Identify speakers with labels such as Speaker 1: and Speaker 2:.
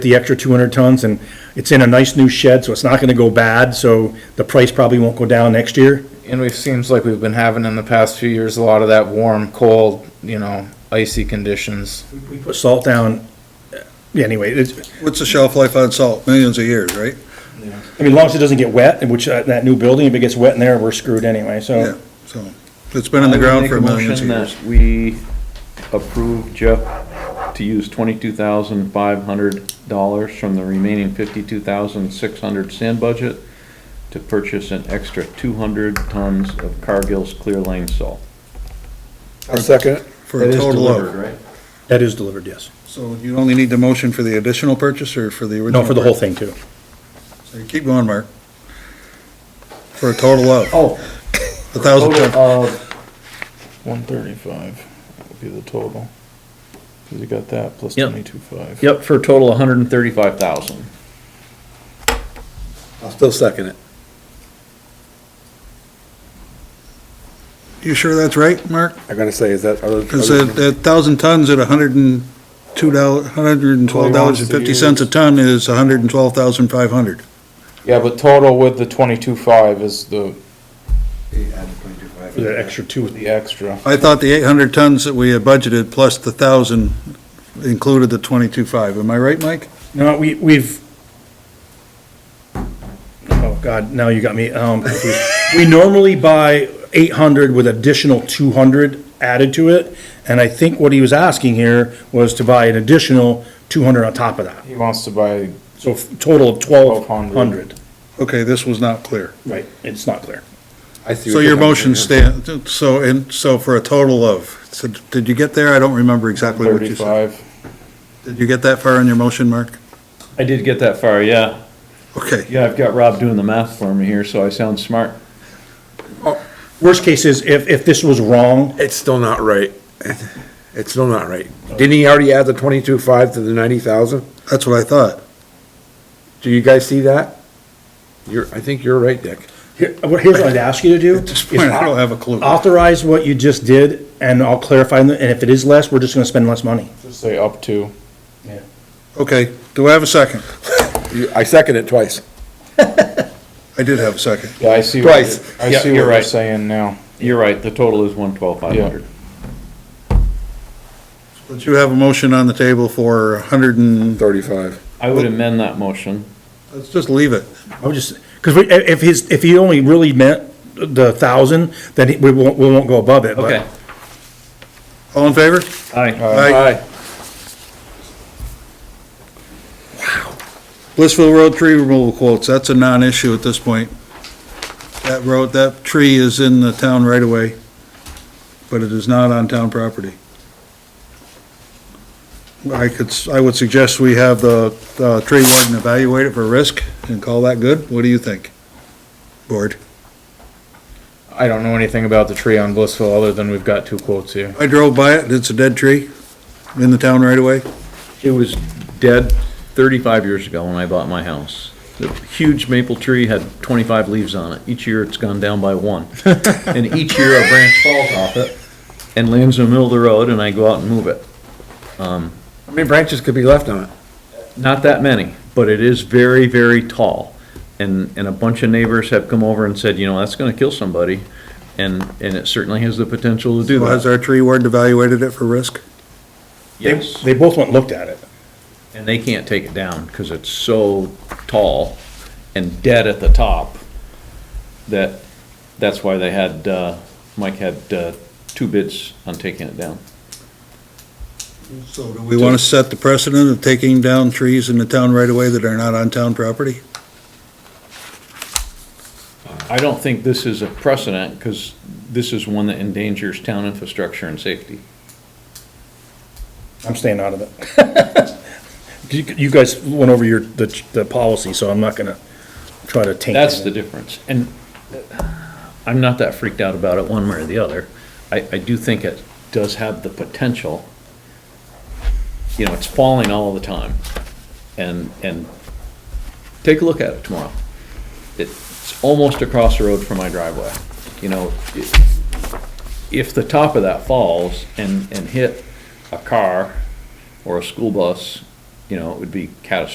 Speaker 1: the extra 200 tons, and it's in a nice new shed, so it's not gonna go bad, so the price probably won't go down next year.
Speaker 2: And it seems like we've been having in the past few years a lot of that warm, cold, you know, icy conditions.
Speaker 1: We put salt down, uh, yeah, anyway, it's,
Speaker 3: What's the shelf life on salt? Millions of years, right?
Speaker 1: I mean, as long as it doesn't get wet, which, uh, that new building, if it gets wet in there, we're screwed anyway,
Speaker 3: Yeah,
Speaker 1: so.
Speaker 3: so, it's been in the ground for millions of
Speaker 4: I would
Speaker 3: years.
Speaker 4: make a motion that we approve Jeff to use twenty-two thousand five hundred dollars from the remaining fifty-two thousand six hundred sand budget to purchase an extra two hundred tons of Cargill's clear lane salt.
Speaker 5: I'll second it.
Speaker 3: For a total of,
Speaker 4: right?
Speaker 1: That is delivered, yes.
Speaker 3: so you only need the motion for the additional purchase or for the original?
Speaker 1: No, for the whole thing, too.
Speaker 3: thing. Keep going, Mark. For a total of,
Speaker 4: Oh,
Speaker 3: a thousand
Speaker 4: total
Speaker 3: ton.
Speaker 4: of,
Speaker 5: One thirty-five would be the total. Cause you got that plus
Speaker 4: Yep.
Speaker 5: twenty-two five.
Speaker 4: yep, for a total of hundred and thirty-five thousand.
Speaker 5: I'll still second it.
Speaker 3: You sure that's right, Mark?
Speaker 5: I gotta say, is that, are those-
Speaker 3: Because a, a thousand tons at a hundred and two dollar, hundred and twelve dollars and fifty cents a ton is a hundred and twelve thousand five hundred.
Speaker 2: Yeah, but total with the twenty-two five is the,
Speaker 1: For the extra two,
Speaker 2: the extra.
Speaker 3: I thought the eight hundred tons that we had budgeted plus the thousand included the twenty-two five. Am I right, Mike?
Speaker 1: no, we, we've, oh, God, now you got me, um, confused. we normally buy 800 with additional 200 added to it, and I think what he was asking here was to buy an additional 200 on top of that.
Speaker 2: He wants to buy,
Speaker 1: So f- total of twelve hundred.
Speaker 3: Okay, this was not clear.
Speaker 1: Right. It's not clear.
Speaker 3: So your motion stand, so, and, so for a total of, so did you get there? I don't remember exactly what you said. Did you get that far on your motion, Mark?
Speaker 4: I did get that far, yeah.
Speaker 3: Okay,
Speaker 4: Yeah, I've got Rob doing the math for me here, so I sound smart.
Speaker 1: Worst case is if, if this was wrong,
Speaker 6: It's still not right. It's still not right. Didn't he already add the twenty-two five to the ninety thousand?
Speaker 3: that's what I thought.
Speaker 6: Do you guys see that? You're, I think you're right, Dick.
Speaker 1: here, well, here's what I'd ask you to do.
Speaker 3: At this point, I don't have a clue.
Speaker 1: Authorize what you just did and I'll clarify, and if it is less, we're just gonna spend less money.
Speaker 2: Just say up to.
Speaker 3: Okay, do I have a second?
Speaker 6: You- I second it twice.
Speaker 3: I did have a second.
Speaker 2: Yeah, I see.
Speaker 6: what Twice.
Speaker 2: I
Speaker 4: Yeah,
Speaker 2: see
Speaker 4: you're
Speaker 2: what you're
Speaker 4: right.
Speaker 2: saying now.
Speaker 4: You're right, the total is one twelve five hundred.
Speaker 3: But you have a motion on the table for a hundred and,
Speaker 6: Thirty-five.
Speaker 4: I would amend that motion.
Speaker 3: let's just leave it.
Speaker 1: I would just, cause we, if his, if he only really meant the thousand, then he- we won't, we won't go above it, but.
Speaker 4: Okay.
Speaker 3: All in favor?
Speaker 4: Aye.
Speaker 3: Aye. Blissville Road tree removal quotes, that's a non-issue at this point. That road, that tree is in the town right away, but it is not on town property. I could, s- I would suggest we have the, the tree warden evaluate it for risk and call that good. What do you think? Board?
Speaker 2: I don't know anything about the tree on Blissville other than we've got two quotes here.
Speaker 3: I drove by it, it's a dead tree in the town right away.
Speaker 4: It was dead thirty-five years ago when I bought my house. The huge maple tree had twenty-five leaves on it. Each year it's gone down by one. And each year a branch falls off it and lands in the middle of the road and I go out and move it.
Speaker 6: How many branches could be left on it?
Speaker 4: Not that many, but it is very, very tall. And, and a bunch of neighbors have come over and said, you know, that's gonna kill somebody. And, and it certainly has the potential to do
Speaker 3: Has
Speaker 4: that.
Speaker 3: our tree warden evaluated it for risk?
Speaker 1: They,
Speaker 4: Yes,
Speaker 1: they both went and looked at it.
Speaker 4: and they can't take it down because it's so tall and dead at the top that, that's why they had, uh, Mike had, uh, two bids on taking it down.
Speaker 3: So do we want to set the precedent of taking down trees in the town right away that are not on town property?
Speaker 4: I don't think this is a precedent because this is one that endangers town infrastructure and safety.
Speaker 1: I'm staying out of it. You, you guys went over your, the, the policy, so I'm not gonna try to taint it.
Speaker 4: That's the difference, and uh, I'm not that freaked out about it one way or the other. I, I do think it does have the potential. You know, it's falling all the time, and, and take a look at it tomorrow. It's almost across the road from my driveway, you know, it- if the top of that falls and, and hit a car or a school bus, you know, it would be catastrophic.